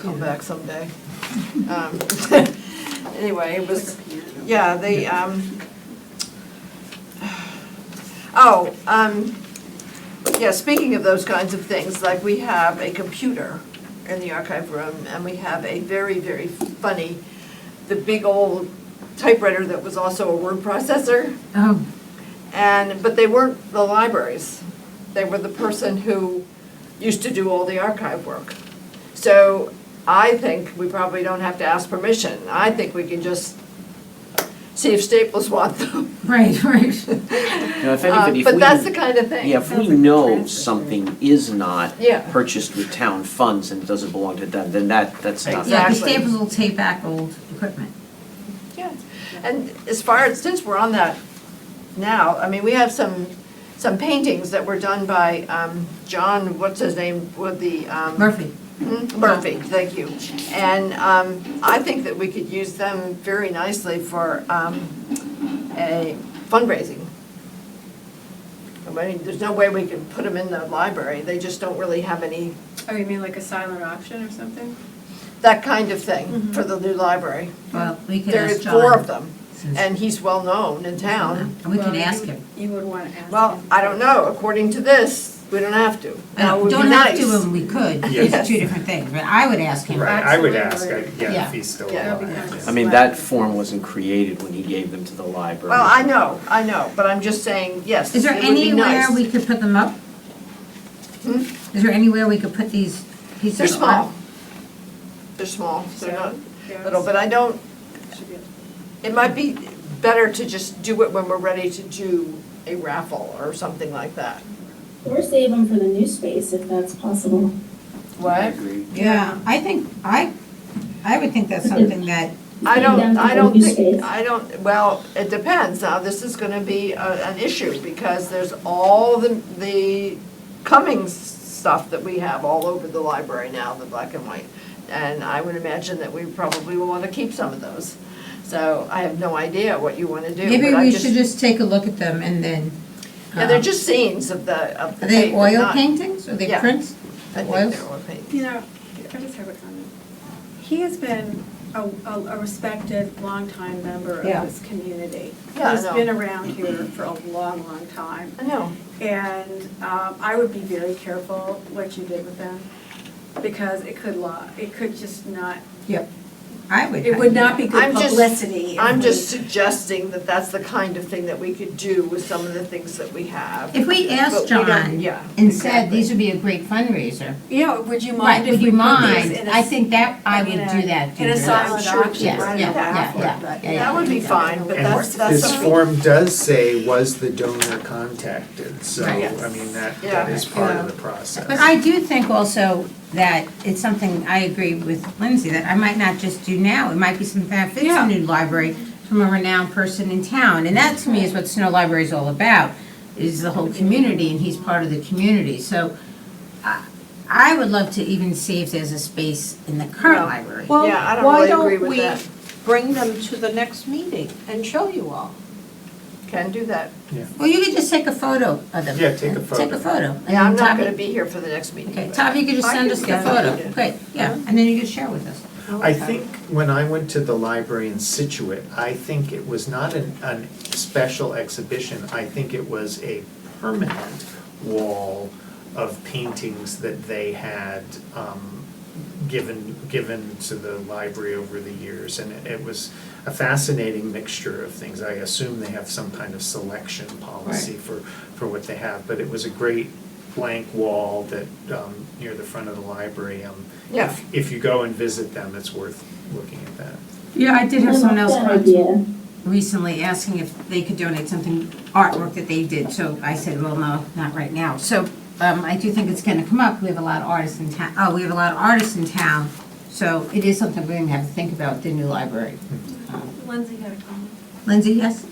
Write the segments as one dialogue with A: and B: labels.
A: come back someday. Um, Anyway, it was, yeah, they, um, oh, um, yeah, speaking of those kinds of things, like we have a computer in the archive room, and we have a very, very funny, the big old typewriter that was also a word processor.
B: Oh,
A: And, but they weren't the libraries. They were the person who used to do all the archive work. So I think we probably don't have to ask permission. I think we can just see if Staples want them.
B: right, right.
C: Now, if
A: Uh,
C: anybody, if we.
A: But that's the kind of thing.
C: Yeah, if we
B: Sounds like
C: know
B: transfer.
C: something is not
A: Yeah.
C: purchased with town funds and it doesn't belong to them, then that, that's not.
B: Yeah, the
A: Exactly.
B: Staples will take back old equipment.
A: Yeah, and as far as, since we're on that now, I mean, we have some, some paintings that were done by um, John, what's his name, with the. um,
B: Murphy,
A: Mm, Murphy, thank you. And um, I think that we could use them very nicely for um, a fundraising. I mean, there's no way we can put them in the library, they just don't really have any,
D: Oh, you mean like a silent auction or something?
A: that kind of thing for the new library.
B: well, we Mm-hmm. could
A: There
B: ask
A: is
B: John. Mm-hmm.
A: four of them,
B: since-
A: and he's well-known in town.
B: We
D: Well,
B: could
D: you
B: ask
D: would-
B: him.
D: You would want to ask him.
A: Well, I don't know, according to this, we don't have to. Now, it
B: Well,
A: would be
B: Uh, Don't have to,
A: nice.
B: and we could,
A: Yes.
B: it's two different things, but I would ask him.
E: Right, I would ask,
D: Absolutely.
E: I- yeah,
B: Yeah.
E: if he's still
A: Yeah.
E: alive.
D: That'd
C: I mean, that form wasn't created when he gave them to the library.
A: Well, I know, I know, but I'm just saying, yes,
B: Is
A: it
B: there
A: would be
B: anywhere
A: nice. Hmm?
B: we could put them up? Is there anywhere we could put these pieces?
A: They're
B: of
A: small.
B: art?
A: They're small, they're not
D: Yeah,
A: little, but I don't,
D: it should be-
A: it might be better to just do it when we're ready to do a raffle or something like that.
F: Or save them for the new space if that's possible.
C: I
A: What?
C: agree.
B: Yeah, I think, I, I would think that's something that,
A: I
F: Down
A: don't,
F: to
A: I
F: the
A: don't
F: new
A: think,
F: space.
A: I don't, well, it depends, now, this is gonna be a, an issue, because there's all the, the Cummings stuff that we have all over the library now, the black and white, and I would imagine that we probably will wanna keep some of those. So I have no idea what you wanna do,
B: maybe
A: but I
B: we should
A: just,
B: just take a look at them and then.
A: yeah, they're
B: uh,
A: just scenes of the, of the
B: Are they
A: paint, but
B: oil
A: not-
B: paintings, are they
A: Yeah.
B: prints?
A: I think
B: Oils?
A: they're oil paint.
D: You know, I just have a comment. He has been a, a a respected, longtime member of
B: Yeah.
D: this community.
A: Yeah, I
D: He's
A: know.
D: been around here for a long, long time.
A: I know.
D: And um, I would be very careful what you did with them, because it could law, it could just not,
B: Yep, I would.
D: it would not be good
A: I'm just-
D: publicity. if
A: I'm
D: we-
A: just suggesting that that's the kind of thing that we could do with some of the things that we have.
B: If we
A: But
B: asked
A: we don't-
B: John
A: yeah,
B: and said,
A: exactly.
B: these would be a great fundraiser,
D: Yeah, would you
B: right,
D: mind if
B: would
D: we
B: you
D: put
B: mind?
D: these in a?
B: I think that, I
D: in
B: would
D: a-
B: do that.
D: In a
B: Deirdre.
D: silent
A: Sure,
D: auction,
B: yes,
D: right?
B: yeah,
D: That
B: yeah,
D: would-
B: yeah,
D: yeah,
A: That would be fine, but
D: And
A: that's,
E: And
A: that's
E: this
A: something.
E: form does say, was the donor contacted, so,
B: Right.
E: I mean, that,
A: Yeah.
E: that is part of
A: Yeah.
E: the process.
B: But I do think also that it's something, I agree with Lindsay, that I might not just do now. It might be something that fits a new library from a renowned person in town. And that to me is what Snow Library is all about, is the whole community, and he's part of the community. So I- I would love to even see if there's a space in the current library.
G: Well,
A: Yeah, I don't
G: why
A: really agree
G: don't
A: with
G: we
A: that.
G: bring them to the next meeting and show you all?
A: Can do that.
B: Well, you could just take a photo of them.
E: Yeah, take a
B: Take
E: photo.
B: a photo. and
A: Yeah, I'm
B: then
A: not
B: Tavi-
A: gonna be here for the next meeting.
B: Okay,
A: but-
B: Tavi, you could just
A: I
B: send
A: can
B: us the
A: get
B: photo.
A: it.
B: Great, yeah, and then you could share with us.
E: I think when I went to the library in Situate, I think it was not an, an special exhibition, I think it was a permanent wall of paintings that they had, um, given, given to the library over the years, and it- it was a fascinating mixture of things. I assume they have some kind of selection policy for, for what they have, but it was a great blank wall that, um, near the front of the library, um,
A: Yeah.
E: if, if you go and visit them, it's worth looking at that.
B: Yeah, I did
F: I like that idea.
B: recently asking if they could donate something, artwork that they did, so I said, well, no, not right now. So um, I do think it's gonna come up, we have a lot of artists in town, oh, we have a lot of artists in town, so it is something we're gonna have to think about, the new library.
D: Lindsay had a comment.
B: Lindsay, yes?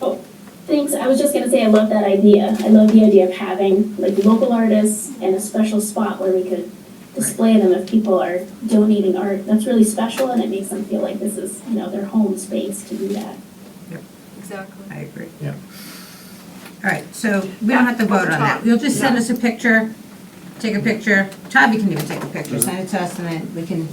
F: Thanks, I was just gonna say I love that idea. I love the idea of having like local artists and a special spot where we could display them if people are donating art. That's really special and it makes them feel like this is, you know, their home space to do that.
D: Exactly.
B: I agree.
E: Yeah.
B: All right, so we don't have to vote on that, you'll just send us a picture, take a picture, Tavi can even take a picture, send it to us, and then we can